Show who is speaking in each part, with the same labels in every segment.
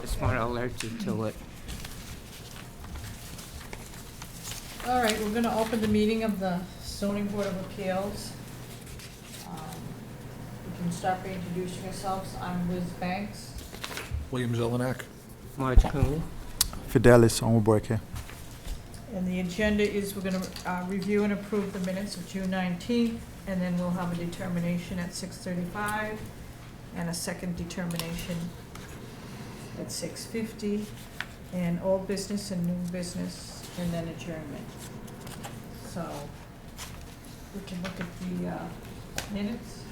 Speaker 1: just want to alert you to it.
Speaker 2: All right, we're gonna open the meeting of the zoning board of appeals. Um, We can start by introducing ourselves. I'm Liz Banks.
Speaker 3: William Zelenak.
Speaker 1: Marge Cooney?
Speaker 4: Fidelis Onwubuike.
Speaker 2: And the agenda is we're gonna uh, review and approve the minutes of June nineteenth, and then we'll have a determination at six thirty-five, and a second determination at six fifty, and old business and new business, and then adjournment. So, we can look at the uh, minutes,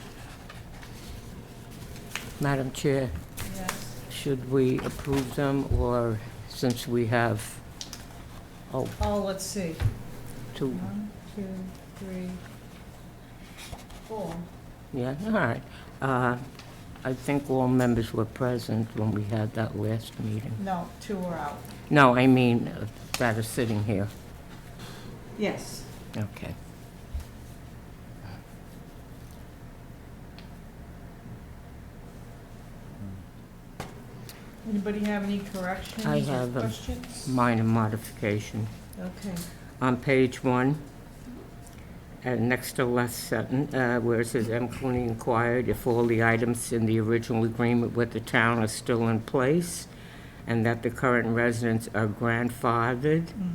Speaker 1: Madam Chair,
Speaker 2: yes?
Speaker 1: should we approve them, or since we have, oh,
Speaker 2: Oh, let's see,
Speaker 1: two,
Speaker 2: one, two, three, four.
Speaker 1: yeah, all right. Uh, I think all members were present when we had that last meeting.
Speaker 2: No, two are out.
Speaker 1: No, I mean, uh, that is sitting here.
Speaker 2: Yes.
Speaker 1: Okay.
Speaker 2: Anybody have any corrections
Speaker 1: I
Speaker 2: or
Speaker 1: have them.
Speaker 2: questions?
Speaker 1: Minor modification.
Speaker 2: Okay,
Speaker 1: on page one, and next to last sentence, uh, where it says M. Cooney inquired if all the items in the original agreement with the town are still in place, and that the current residents are grandfathered
Speaker 2: Mm.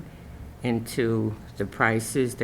Speaker 1: into the prices